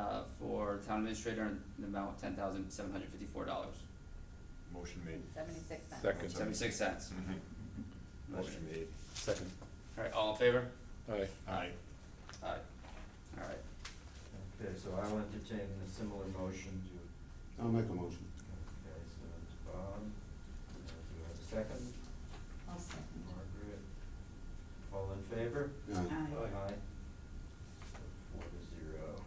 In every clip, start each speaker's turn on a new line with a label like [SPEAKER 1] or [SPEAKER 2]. [SPEAKER 1] uh, for town administrator in the amount of ten thousand seven hundred fifty-four dollars,
[SPEAKER 2] Motion made.
[SPEAKER 3] Seventy-six cents.
[SPEAKER 4] Second.
[SPEAKER 1] seventy-six cents.
[SPEAKER 4] Mm-hmm.
[SPEAKER 2] Motion made.
[SPEAKER 4] Second.
[SPEAKER 1] Alright, all in favor?
[SPEAKER 4] Aye.
[SPEAKER 2] Aye.
[SPEAKER 1] Aye. Alright,
[SPEAKER 5] Okay, so I'll entertain a similar motion to,
[SPEAKER 6] I'll make a motion.
[SPEAKER 5] okay, so it's Bob, Uh, do you have a second?
[SPEAKER 3] I'll second.
[SPEAKER 5] Margaret, all in favor?
[SPEAKER 6] Aye.
[SPEAKER 3] Aye.
[SPEAKER 5] Aye. Four to zero.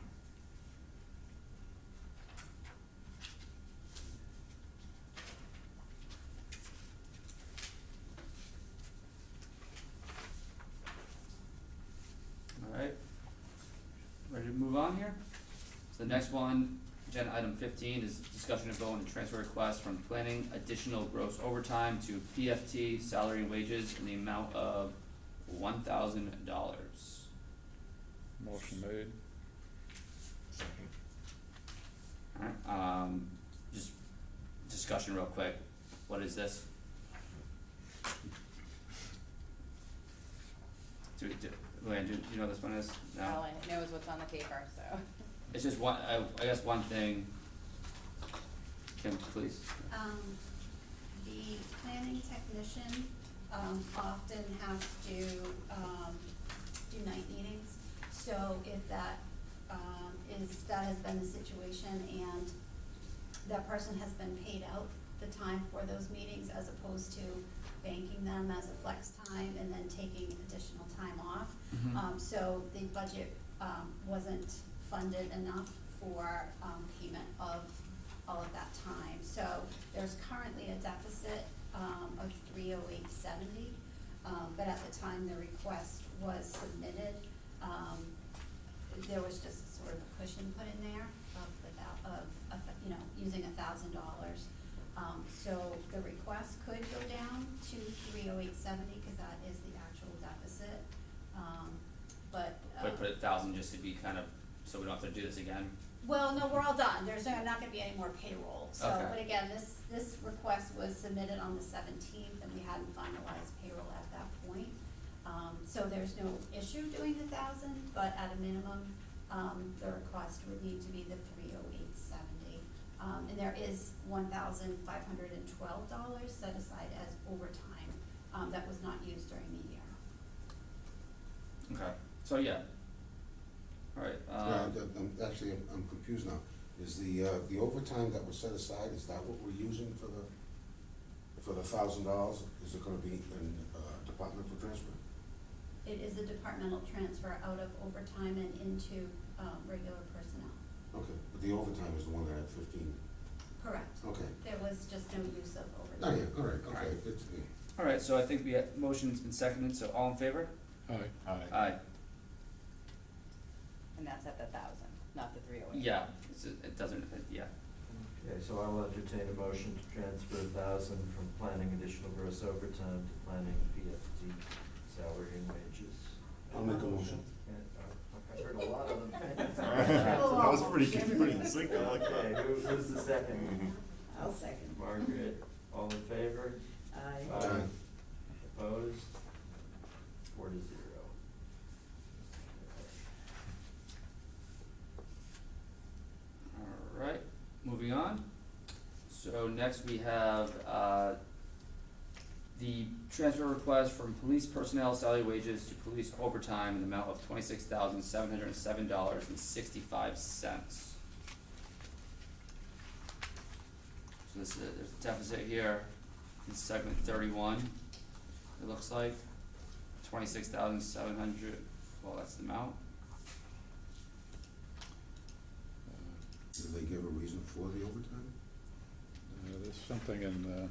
[SPEAKER 1] alright. Ready to move on here? So the next one, agenda item fifteen is discussion of vote on the transfer request from planning additional gross overtime to PFT salary and wages in the amount of one thousand dollars.
[SPEAKER 4] Motion made.
[SPEAKER 2] Second.
[SPEAKER 1] Alright, um, just discussion real quick, what is this? Do we, do, Luann, do you know what this one is? No?
[SPEAKER 3] All I know is what's on the paper, so.
[SPEAKER 1] It's just one, I, I guess one thing. Kim, please.
[SPEAKER 7] Um, the planning technician, um, often has to, um, do night meetings. So if that, um, is, that has been the situation and that person has been paid out the time for those meetings as opposed to banking them as a flex time and then taking additional time off.
[SPEAKER 1] Mhm.
[SPEAKER 7] Um, so the budget, um, wasn't funded enough for, um, payment of all of that time. So there's currently a deficit, um, of three oh eight seventy, um, but at the time the request was submitted, um, there was just sort of a cushion put in there of the thou- of, of, you know, using a thousand dollars. Um, so the request could go down to three oh eight seventy, cause that is the actual deficit, um, but, uh,
[SPEAKER 1] But put a thousand just to be kind of, so we don't have to do this again.
[SPEAKER 7] well, no, we're all done, there's no- not gonna be any more payroll, so,
[SPEAKER 1] Okay.
[SPEAKER 7] but again, this, this request was submitted on the seventeenth, and we hadn't finalized payroll at that point. Um, so there's no issue doing the thousand, but at a minimum, um, the request would need to be the three oh eight seventy. Um, and there is one thousand five hundred and twelve dollars set aside as overtime, um, that was not used during the year.
[SPEAKER 1] Okay. So, yeah. Alright,
[SPEAKER 6] Yeah,
[SPEAKER 1] um,
[SPEAKER 6] I'm- I'm- actually, I'm- I'm confused now. Is the, uh, the overtime that was set aside, is that what we're using for the, for the thousand dollars? Is it gonna be in, uh, Department for Transfer?
[SPEAKER 7] It is a departmental transfer out of overtime and into, um, regular personnel.
[SPEAKER 6] Okay, but the overtime is the one that had fifteen.
[SPEAKER 7] Correct.
[SPEAKER 6] Okay.
[SPEAKER 7] There was just no use of
[SPEAKER 6] Oh,
[SPEAKER 7] overtime.
[SPEAKER 6] yeah, all right, okay,
[SPEAKER 1] Alright.
[SPEAKER 6] it's, uh, yeah.
[SPEAKER 1] alright, so I think we had, motion's been seconded, so all in favor?
[SPEAKER 4] Aye.
[SPEAKER 2] Aye.
[SPEAKER 1] Aye.
[SPEAKER 3] And that's at the thousand, not the three oh eight.
[SPEAKER 1] Yeah, it's, it doesn't, yeah.
[SPEAKER 5] Okay, so I'll entertain a motion to transfer a thousand from planning additional gross overtime to planning PFD salary and wages.
[SPEAKER 6] I'll make a motion.
[SPEAKER 5] Okay, uh, I heard a lot of them.
[SPEAKER 2] That was pretty, pretty succinct, I like
[SPEAKER 5] Okay,
[SPEAKER 4] Uh,
[SPEAKER 2] that.
[SPEAKER 5] who, who's the second?
[SPEAKER 8] I'll second.
[SPEAKER 5] Margaret, all in favor?
[SPEAKER 8] Aye.
[SPEAKER 6] Aye.
[SPEAKER 5] Opposed? Four to zero.
[SPEAKER 1] Alright, moving on. So next we have, uh, the transfer request from police personnel salary wages to police overtime in the amount of twenty-six thousand seven hundred and seven dollars and sixty-five cents. So this is, there's a deficit here in segment thirty-one, it looks like, twenty-six thousand seven hundred, well, that's the amount.
[SPEAKER 4] Uh,
[SPEAKER 6] Did they give a reason for the overtime?
[SPEAKER 4] uh, There's something in, uh,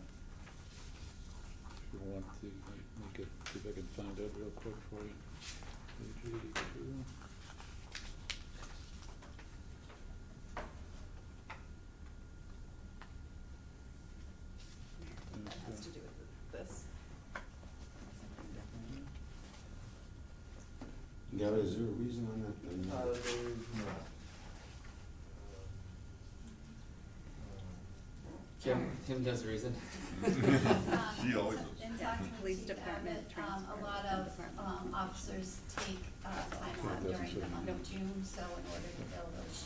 [SPEAKER 4] if you want to, make it, see if I can find it real quick for you. Page eighty-two.
[SPEAKER 3] That has to do with this.
[SPEAKER 6] Gary, is there a reason on that?
[SPEAKER 5] No,
[SPEAKER 6] No.
[SPEAKER 5] Uh, there is not. uh,
[SPEAKER 1] Kim, Kim does the reason.
[SPEAKER 2] She always
[SPEAKER 7] Um,
[SPEAKER 2] does.
[SPEAKER 7] In talking to
[SPEAKER 8] Police
[SPEAKER 7] Chief
[SPEAKER 8] department
[SPEAKER 7] Abbott, um,
[SPEAKER 8] transfer,
[SPEAKER 7] a lot
[SPEAKER 8] town
[SPEAKER 7] of,
[SPEAKER 8] department.
[SPEAKER 7] um, officers take, uh, time
[SPEAKER 4] Yeah,
[SPEAKER 7] off
[SPEAKER 4] that's
[SPEAKER 7] during the
[SPEAKER 4] what-
[SPEAKER 7] month of June, so in order to fill those